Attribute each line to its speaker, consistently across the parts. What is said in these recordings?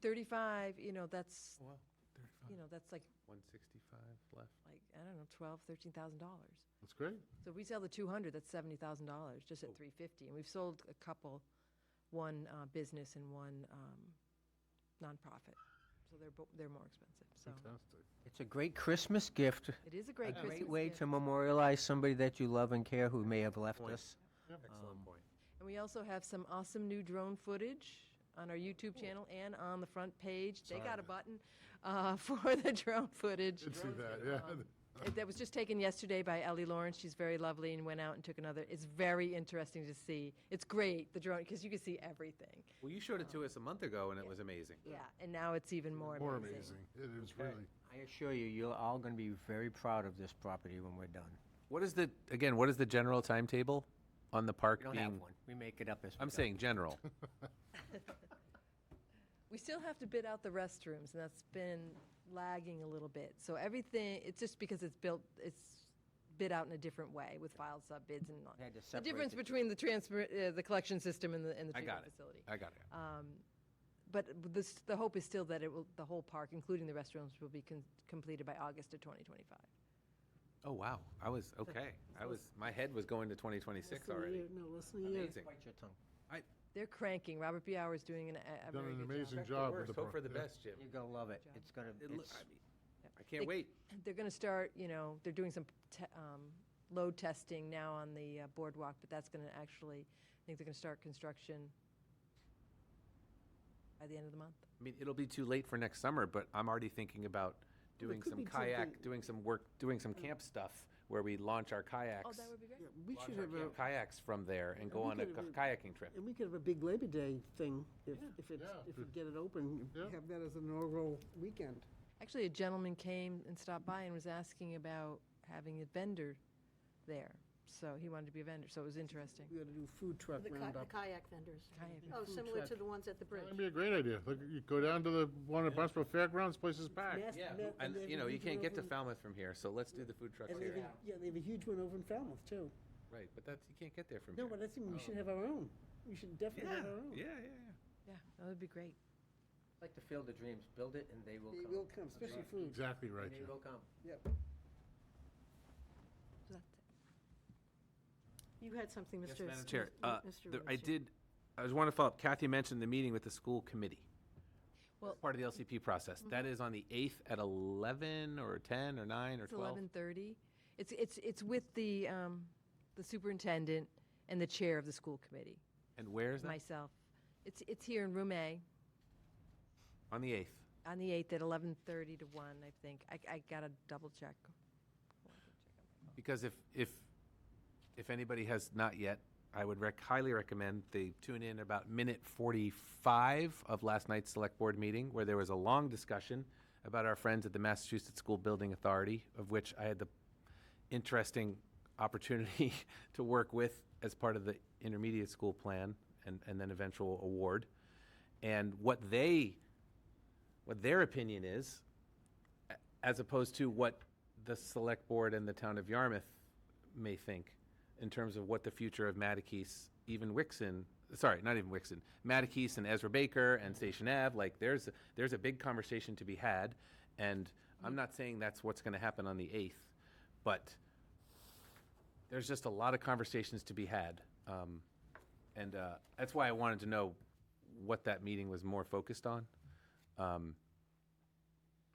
Speaker 1: 35, you know, that's,
Speaker 2: Wow,
Speaker 1: you know, that's like,
Speaker 2: 165 left.
Speaker 1: like, I don't know, 12, 13,000 dollars.
Speaker 2: That's great.
Speaker 1: So if we sell the 200, that's 70,000 dollars, just at
Speaker 2: Oh.
Speaker 1: 350. And we've sold a couple, one uh, business and one um, nonprofit. So they're, bo- they're more expensive, so.
Speaker 2: Fantastic.
Speaker 3: It's a great Christmas gift,
Speaker 1: It is a
Speaker 3: a
Speaker 1: great Christmas
Speaker 3: great way
Speaker 1: gift.
Speaker 3: to memorialize somebody that you love and care who may have left
Speaker 2: Point.
Speaker 3: us.
Speaker 4: Um,
Speaker 2: Excellent point.
Speaker 1: And we also have some awesome new drone footage on our YouTube channel and on the front page. They got a button uh, for the drone footage.
Speaker 2: Did see that, yeah.
Speaker 1: It- That was just taken yesterday by Ellie Lawrence. She's very lovely and went out and took another. It's very interesting to see. It's great, the drone, because you can see everything.
Speaker 4: Well, you showed it
Speaker 2: Um,
Speaker 4: to us a month ago, and it was amazing.
Speaker 1: Yeah, and now it's even more
Speaker 2: More
Speaker 1: amazing.
Speaker 2: amazing. It is really,
Speaker 3: I assure you, you're all going to be very proud of this property when we're done.
Speaker 4: What is the, again, what is the general timetable on the park
Speaker 3: We don't have
Speaker 4: being?
Speaker 3: one. We make it up as we go.
Speaker 4: I'm saying general.
Speaker 1: We still have to bid out the restrooms, and that's been lagging a little bit. So everything, it's just because it's built, it's bid out in a different way with filed sub bids and not.
Speaker 3: We had to
Speaker 1: The
Speaker 3: separate
Speaker 1: difference
Speaker 3: the
Speaker 1: between the transfer, uh, the collection system and the, and the
Speaker 4: I got
Speaker 1: treatment
Speaker 4: it.
Speaker 1: facility.
Speaker 4: I got it.
Speaker 1: But this, the hope is still that it will, the whole park, including the restrooms, will be con- completed by August of 2025.
Speaker 4: Oh, wow. I was, okay. I was, my head was going to 2026
Speaker 5: Listen to
Speaker 4: already.
Speaker 5: you. No, listen to you.
Speaker 4: Amazing.
Speaker 3: Bite your tongue.
Speaker 1: They're cranking. Robert B. Hour is doing an, a- a
Speaker 2: done
Speaker 1: very
Speaker 2: an
Speaker 1: good job.
Speaker 2: amazing
Speaker 4: Expect the
Speaker 2: job with
Speaker 4: worst,
Speaker 2: the.
Speaker 4: Hope for
Speaker 2: pro-
Speaker 4: the
Speaker 2: yeah.
Speaker 4: best, Jim.
Speaker 3: You're going to love it. It's going
Speaker 4: It
Speaker 3: to,
Speaker 4: loo-
Speaker 3: it's,
Speaker 4: I mean, I can't
Speaker 1: They-
Speaker 4: wait.
Speaker 1: They're going to start, you know, they're doing some te- um, load testing now on the uh, boardwalk, but that's going to actually, I think they're going to start construction by the end of the month.
Speaker 4: I mean, it'll be too late for next summer, but I'm already thinking about doing
Speaker 5: could
Speaker 4: some
Speaker 5: be
Speaker 4: kayak,
Speaker 5: something-
Speaker 4: doing some work, doing some camp stuff where we launch our
Speaker 1: Oh,
Speaker 4: kayaks.
Speaker 1: that would be great.
Speaker 5: Yeah, We should have
Speaker 4: Camp
Speaker 5: a,
Speaker 4: Kayaks from there and go
Speaker 5: we
Speaker 4: on a
Speaker 5: could
Speaker 4: k-
Speaker 5: have a-
Speaker 4: kayaking trip.
Speaker 5: and we could have a big Labor Day thing if, if it's,
Speaker 2: Yeah.
Speaker 5: if we get it open,
Speaker 2: Yeah.
Speaker 5: have that as an inaugural weekend.
Speaker 1: Actually, a gentleman came and stopped by and was asking about having a vendor there. So he wanted to be a vendor, so it was interesting.
Speaker 5: We ought to do food truck
Speaker 6: The ki- the
Speaker 5: roundup.
Speaker 6: kayak vendors.
Speaker 1: Kayak
Speaker 6: Oh,
Speaker 5: Food
Speaker 6: similar to
Speaker 5: truck.
Speaker 6: the ones at the bridge.
Speaker 2: That'd be a great idea. Look, you go down to the one at Barnstable Fairgrounds, places packed.
Speaker 5: Yes,
Speaker 4: Yeah,
Speaker 5: and they-
Speaker 4: and
Speaker 5: and they have
Speaker 4: you
Speaker 5: a
Speaker 4: know, you
Speaker 5: huge
Speaker 4: can't
Speaker 5: one
Speaker 4: get to
Speaker 5: over in-
Speaker 4: Falmouth from here, so let's do the food trucks
Speaker 5: and they have
Speaker 4: here.
Speaker 5: a- Yeah, they have a huge one over in Falmouth, too.
Speaker 4: Right, but that's, you can't get there from
Speaker 5: No,
Speaker 4: here.
Speaker 5: but I think we should have our own. We should definitely have our own.
Speaker 4: yeah,
Speaker 1: Yeah, that would be great.
Speaker 3: like the field of dreams. Build it and they will
Speaker 5: They
Speaker 3: come.
Speaker 5: will come, especially food.
Speaker 2: Exactly right,
Speaker 3: They
Speaker 2: Jim.
Speaker 3: will come.
Speaker 5: Yep.
Speaker 1: So that's it.
Speaker 6: You had something, Mr.
Speaker 4: Madam
Speaker 6: Mr.
Speaker 4: Chair, uh,
Speaker 6: Mr.
Speaker 4: there- I
Speaker 6: Russo.
Speaker 4: did, I just want to follow up, Kathy mentioned the meeting with the school committee.
Speaker 1: Well-
Speaker 4: Part of the LCP process.
Speaker 5: Mm-hmm.
Speaker 4: That is on the 8th at 11 or 10 or 9 or
Speaker 1: It's
Speaker 4: 12?
Speaker 1: 11:30. It's, it's, it's with the, um, the superintendent and the chair of the school committee,
Speaker 4: And where is that?
Speaker 1: myself. It's, it's here in room A.
Speaker 4: On the 8th.
Speaker 1: on the 8th at 11:30 to 1, I think. I, I gotta double check.
Speaker 4: Because if, if, if anybody has not yet, I would rec, highly recommend they tune in about minute forty-five of last night's select board meeting, where there was a long discussion about our friends at the Massachusetts School Building Authority, of which I had the interesting opportunity to work with as part of the intermediate school plan and, and then eventual award. And what they, what their opinion is, a- as opposed to what the select board and the town of Yarmouth may think in terms of what the future of Mattakese, even Wixon, sorry, not even Wixon, Mattakese and Ezra Baker and Station Ave, like, there's, there's a big conversation to be had. And I'm not saying that's what's gonna happen on the eighth, but there's just a lot of conversations to be had. Um, and, uh, that's why I wanted to know what that meeting was more focused on. Um,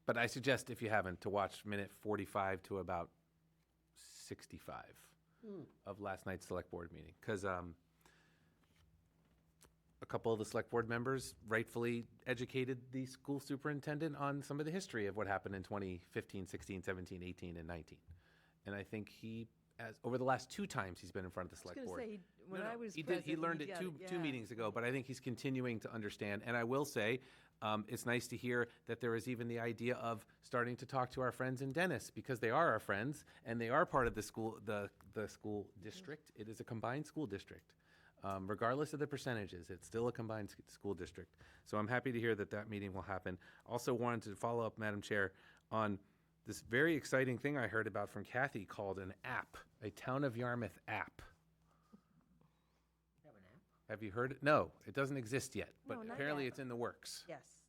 Speaker 4: but I suggest, if you haven't, to watch minute 45 to about 65
Speaker 1: Hmm.
Speaker 4: of last night's select board meeting. Because um, a couple of the select board members rightfully educated the school superintendent on some of the history of what happened in 2015, 16, 17, 18, and 19. And I think he, as over the last two times he's been in front of the select
Speaker 1: gonna
Speaker 4: board.
Speaker 1: say, when
Speaker 4: No, no,
Speaker 1: I was
Speaker 4: he did- He
Speaker 1: present,
Speaker 4: learned
Speaker 1: he
Speaker 4: it
Speaker 1: got
Speaker 4: two,
Speaker 1: it,
Speaker 4: two
Speaker 1: yeah.
Speaker 4: meetings ago, but I think he's continuing to understand. And I will say, um, it's nice to hear that there is even the idea of starting to talk to our friends in Dennis because they are our friends and they are part of the school, the, the school district. It is a combined school district. Um, regardless of the percentages, it's still a combined s- school district. So I'm happy to hear that that meeting will happen. Also wanted to follow up, Madam Chair, on this very exciting thing I heard about from Kathy called an app, a Town of Yarmouth app. Have you heard it? No, it doesn't exist yet, but
Speaker 1: No, not
Speaker 4: apparently
Speaker 1: yet.
Speaker 4: it's in the works.
Speaker 1: Yes,